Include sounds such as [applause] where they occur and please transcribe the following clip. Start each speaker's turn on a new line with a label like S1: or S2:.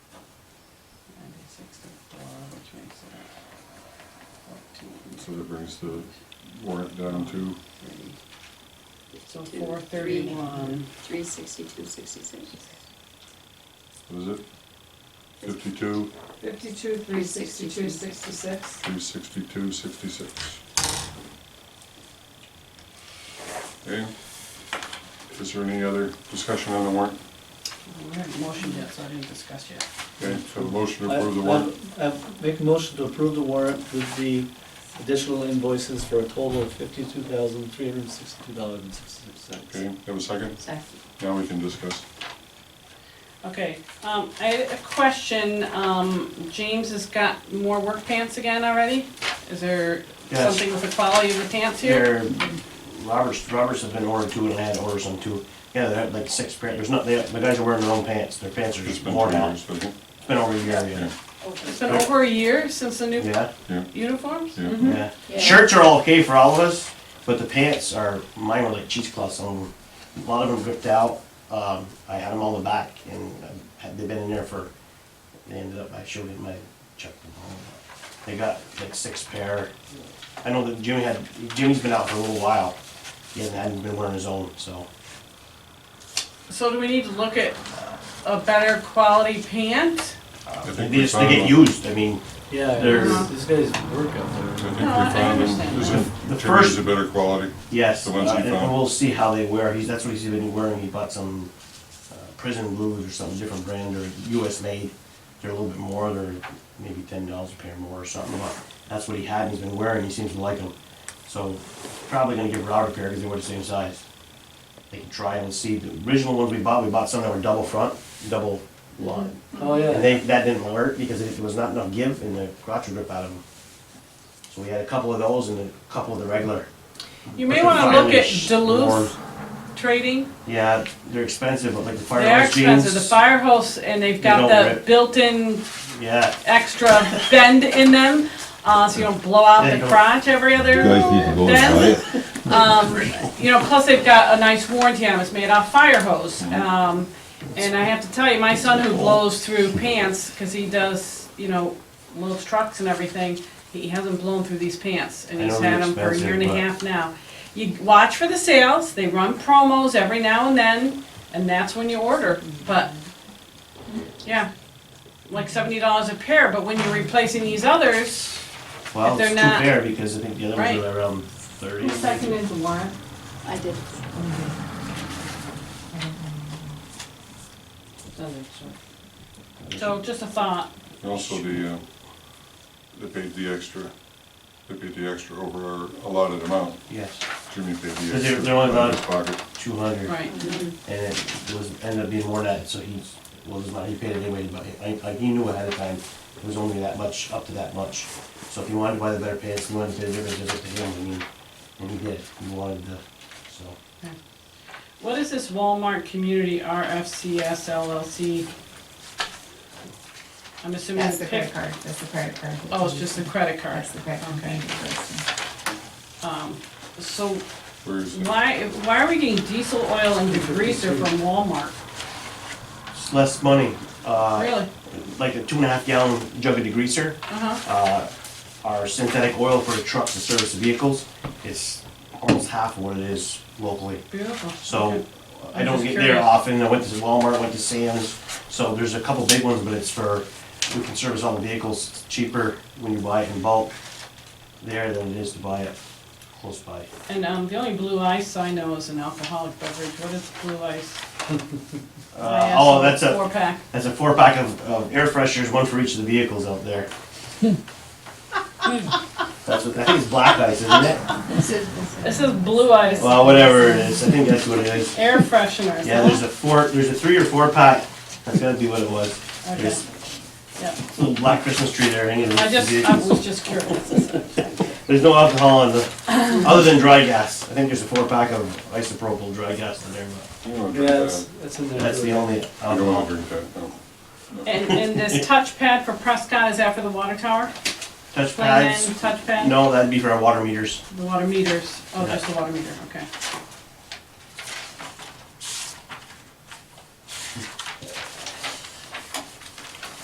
S1: So that brings the warrant down to,
S2: So four thirty-one,
S3: Three sixty-two, sixty-six.
S1: what is it? Fifty-two,
S4: Fifty-two, three sixty-two, sixty-six.
S1: three sixty-two, sixty-six. Okay, is there any other discussion on the warrant?
S2: we haven't motioned yet, so I didn't discuss yet.
S1: Okay, so motion to
S5: I-
S1: approve the warrant,
S5: I I make a motion to approve the warrant with the additional invoices for a total of fifty-two thousand, three hundred and sixty-two dollars and sixty-six
S1: okay,
S5: cents.
S1: have a second?
S3: Second.
S1: Now we can discuss.
S6: Okay, um, I had a question, um, James has got more work pants again already? Is there
S7: Yes.
S6: something with the quality of the pants here?
S7: There, Roberts, Roberts has been ordered two and I had to order some too. Yeah, they had like six pairs, there's not, they, the guys are wearing their own pants, their pants are
S1: It's
S7: just
S1: been
S7: worn
S1: two
S7: out.
S1: years, hasn't it?
S7: It's been over a year, yeah.
S6: It's been over a year since the new
S7: Yeah,
S1: Yeah,
S6: uniforms?
S1: Yeah.
S5: Mm-hmm.
S6: Mhm.
S7: yeah.
S3: Yeah.
S7: Shirts are okay for all of us, but the pants are, mine were like cheesecloths on them. A lot of them ripped out, um, I had them on the back and I had, they've been in there for, they ended up, I showed it in my check them home. They got like six pair. I know that Jimmy had, Jimmy's been out for a little while. He hasn't- hadn't been wearing his own, so.
S6: So do we need to look at a better quality pant?
S1: I
S7: They
S1: think we
S7: just, they
S1: found
S7: get
S1: one.
S7: used, I mean,
S5: Yeah,
S7: There-
S5: this this guy's work out
S1: I
S5: there.
S1: think we
S6: No, I- I
S1: found
S6: understand
S1: them, is
S7: that.
S1: it,
S7: The
S1: Jimmy's
S7: first-
S1: a better quality,
S7: yes,
S1: The
S7: uh,
S1: ones you
S7: and
S1: found.
S7: we'll see how they wear, he's, that's what he's been wearing, he bought some uh, prison blues or some different brand, they're US made, they're a little bit more, they're maybe ten dollars a pair more or something, but that's what he had, and he's been wearing, he seems to like them. So, probably gonna give Robert a pair, because they were the same size. They can try and see, the original ones we bought, we bought some that were double front, double line.
S5: Oh,
S7: And
S5: yeah.
S7: they, that didn't work because it- there was not enough give in the crotch rip out of them. So we had a couple of those and a couple of the regular.
S6: You
S7: But
S6: may
S7: the
S6: wanna look at
S7: Firehose
S6: Duluth
S7: wore-
S6: trading,
S7: Yeah, they're expensive, but like the fire
S6: they're
S7: hose
S6: expensive, the
S7: jeans.
S6: fire hose, and they've
S7: They
S6: got
S7: don't
S6: the
S7: rip.
S6: built-in
S7: Yeah,
S6: extra bend in them, uh, so you don't blow out
S7: There
S6: the
S7: you go.
S6: crotch every other bend. Um, you know, plus they've got a nice warranty on them, it's made off fire hose.
S7: Mm-hmm.
S6: Um, and I have to tell you, my son who blows through pants, cause he does, you know, loads trucks and everything, he hasn't blown through these pants, and
S7: I
S6: he's
S7: know they're
S6: had them for a year and a
S7: expensive, but-
S6: half now. You watch for the sales, they run promos every now and then, and that's when you order, but, yeah, like seventy dollars a pair, but when you're replacing these others,
S7: well,
S6: If
S7: it's
S6: they're
S7: too
S6: not-
S7: bare because I think the other ones
S6: Right.
S7: are around thirty.
S4: Who seconded the warrant?
S3: I did.
S6: so just a thought.
S1: Also, the, uh, they paid the extra, they paid the extra over our allotted amount.
S7: Yes,
S1: Jimmy paid the
S7: They're-
S1: extra.
S7: they're only
S1: out of his pocket.
S7: two hundred.
S6: Right.
S7: And it was, ended up being more than that, so he, well, it was not, he paid it anyway, but I, I, he knew ahead of time, it was only that much, up to that much. So if he wanted to buy the better pants, he wanted to pay the difference, it's up to him, I mean, and he did, he wanted to, so.
S6: What is this Walmart Community RFCS LLC? I'm assuming
S8: That's
S6: it's
S8: the credit card, that's the credit card.
S6: Oh, it's just the credit card.
S8: That's the credit card.
S6: Okay. Um, So
S1: Where is it?
S6: why, why are we getting diesel oil and degreaser from Walmart?
S7: It's less money, uh,
S6: Really?
S7: like a two and a half gallon jug of degreaser,
S6: Uh-huh.
S7: uh, our synthetic oil for the trucks and service vehicles, it's almost half of what it is locally.
S6: Beautiful.
S7: So
S6: Okay.
S7: I
S6: I'm
S7: don't
S6: just
S7: get there
S6: curious.
S7: often. I went to Walmart, went to Sam's. So there's a couple big ones, but it's for, we can service all the vehicles It's cheaper when you buy it in bulk there than it is to buy it close by.
S6: And um, the only blue ice I know is an alcoholic beverage. What is blue ice? I
S7: Uh,
S6: asked
S7: oh,
S6: for
S7: that's a,
S6: Four pack.
S7: that's a four pack of, of air fresheners, one for each of the vehicles
S6: [laughs]
S7: out there. That's what, I think it's black ice,
S6: [laughs]
S7: isn't it?
S6: It says blue ice,
S7: Well, whatever it is, I think that's what it is.
S6: air fresheners.
S7: Yeah, there's a four, there's a three or four pack. That's gotta be what it was.
S6: Okay.
S7: There's
S6: Yeah.
S7: a little black Christmas tree there, any of
S6: I
S7: those
S6: just, I
S7: vehicles.
S6: was just curious.
S7: There's no alcohol in the,
S6: [laughs]
S7: other than dry gas. I think there's a four pack of isopropyl dry gas in there, but
S1: You don't
S5: Yeah,
S1: drink
S5: that's,
S1: that.
S5: that's in there.
S7: that's the only
S1: You don't wanna
S7: alcohol.
S1: drink that, no.
S6: And, and this touchpad for Prescott is that for the water tower?
S7: Touch
S6: Plan
S7: pads?
S6: touchpad?
S7: No, that'd be for our water meters.
S6: The water meters, oh,
S7: Yeah.
S6: just the water meter, okay.